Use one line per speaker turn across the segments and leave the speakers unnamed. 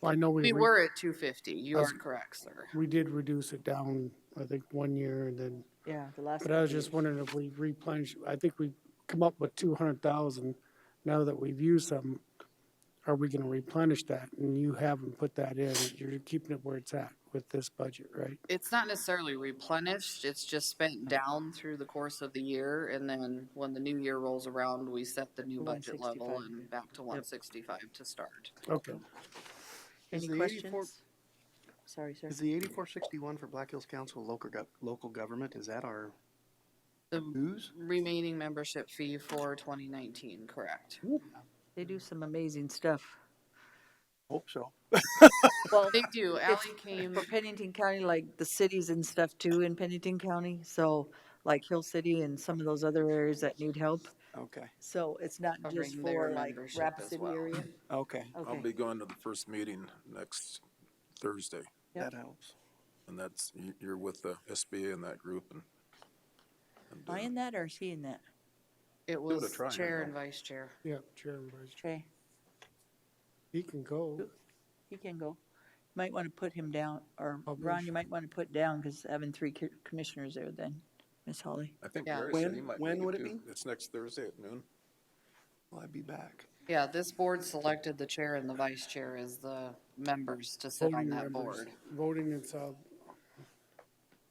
Well, I know we,
We
re-
were at two fifty. You
That's-
are correct, sir.
we did reduce it down, I think, one year and then,
Yeah, the last.
but I was
couple
just
years.
wondering if we replenish, I think we come up with two hundred thousand. Now that we've used some, are we gonna replenish that? And you haven't put that in, you're keeping it where it's at with this budget, right?
It's not necessarily replenished. It's just spent down through the course of the year. And then when the new year rolls around, we set the new budget level
165.
and back to one sixty-five to start.
Okay,
Is
Any
the 84
questions? Sorry, sir.
Is the eighty-four sixty-one for Black Hills Council local gov- local government, is that our
The
dues?
remaining membership fee for twenty nineteen, correct?
They do some amazing stuff.
Hope so.
Well,
They do. Allie came,
Um, for Pennington County, like the cities and stuff too in Pennington County, so like Hill City and some of those other areas that need help.
Okay,
So it's not just
Covering their
for like
membership
Rapid
as
City
well.
area.
okay,
I'll
Okay,
be going to the first meeting next Thursday,
Yep.
that helps.
and that's, you- you're with the SBA and that group and. and, uh,
buying that or seeing that?
it
it a
was
try, I
chair
know.
and vice chair.
yeah, Chairman Bryce,
Trey,
he can go.
he can go. Might want to put him down, or
Oh,
Ron,
Publish.
you might want to put down because having three co- commissioners there then, Miss Holly.
I think
Yeah.
Barry said he
When-
might.
when
make it
would it
too.
be?
It's next Thursday at noon.
Will I be back?
Yeah, this board selected the chair and the vice chair as the members to sit on
voting
that
members,
board.
Voting and sub,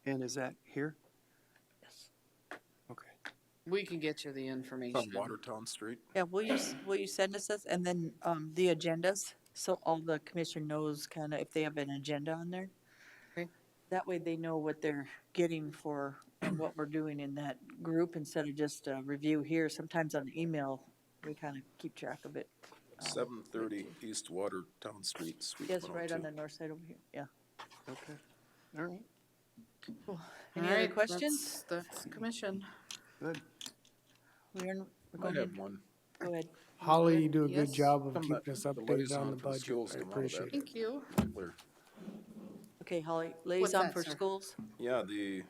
And is that here? Yes. Okay,
We can get you the information.
On Watertown Street.
Yeah, will you, s- will you send us this, and then, um, the agendas, so all the commission knows kind of if they have an agenda on there?
Okay.
That way they know what they're getting for and what we're doing in that group instead of just a review here. Sometimes on email, we kind of keep track of it. Um,
Seven thirty East Watertown Street, Suite
Yes, right on the
102.
north side over here, yeah.
okay, all right,
Any
All
other
right,
questions?
That's that's commission.
good.
We're in, we're
I
going
have
in,
one.
go ahead.
Holly, you do a
Yes.
good job of
Some of
keeping
the-
us
the
updated on
liaison
the
for
budget,
schools
I
and all that.
appreciate it.
Thank you.
Clear.
Okay, Holly, liaison
that,
for
sir?
schools,
Yeah, the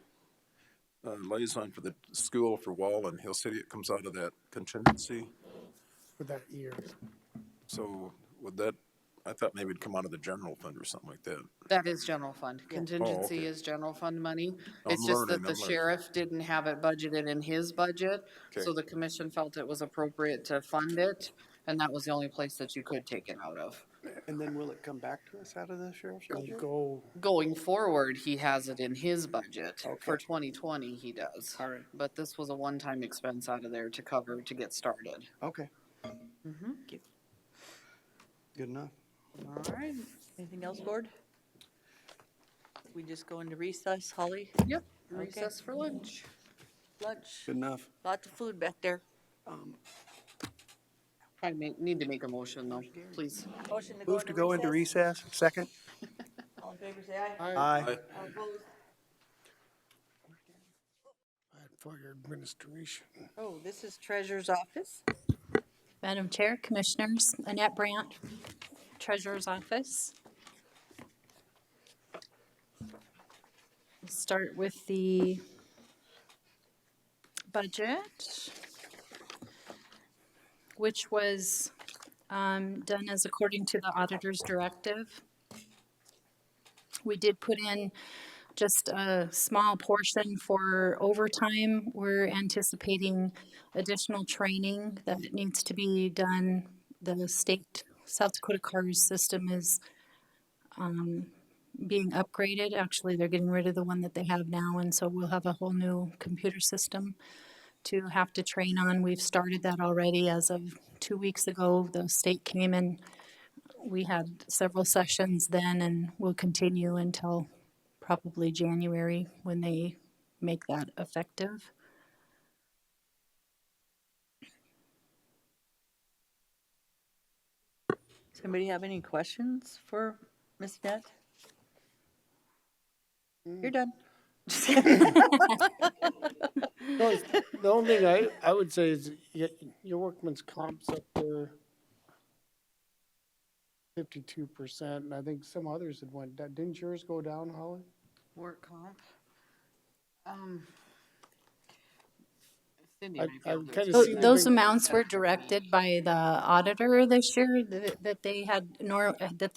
uh, liaison for the school for Wall and Hill City, it comes out of that contingency.
for that year.
So would that, I thought maybe it'd come out of the general fund or something like that.
That is general fund. Contingency
Oh, okay.
is general fund money.
I'm
It's just that
learning,
the
I'm learning.
sheriff didn't have it budgeted in his budget, so
Okay.
the commission felt it was appropriate to fund it, and that was the only place that you could take it out of.
And then will it come back to us out of the sheriff's budget?
Go,
Going forward, he has it in his budget. For 2020, he does.
All right.
But this was a one-time expense out of there to cover, to get started.
Okay. Good enough.
all right, anything else, board? We just go into recess, Holly,
Yep, recess for lunch.
lunch,
Good enough.
lots of food back there.
I may, need to make a motion though, please.
Motion to go
Move to go into
recess.
recess, second?
All in favor, say aye.
Aye.
All opposed?
for your administration.
Oh, this is treasurer's office.
Madam Chair, Commissioners, Annette Brandt, Treasurer's Office. Start with the budget, which was um, done as according to the auditor's directive. We did put in just a small portion for overtime. We're anticipating additional training that needs to be done. The state South Dakota CARS system is um, being upgraded. Actually, they're getting rid of the one that they have now, and so we'll have a whole new computer system to have to train on. We've started that already as of two weeks ago. The state came and we had several sessions then, and we'll continue until probably January when they make that effective.
Somebody have any questions for Ms. Net?
Mm.
You're done.
No, it's- the only thing I, I would say is y- your workman's comp's up there fifty-two percent, and I think some others had went, down. didn't yours go down, Holly?
Work comp. Um. Cindy
I-
might be able
I'm kinda
to explain
Does
Tho-
seeing- it
Those
bring-
amounts were directed by the auditor this year, that that they had, nor, that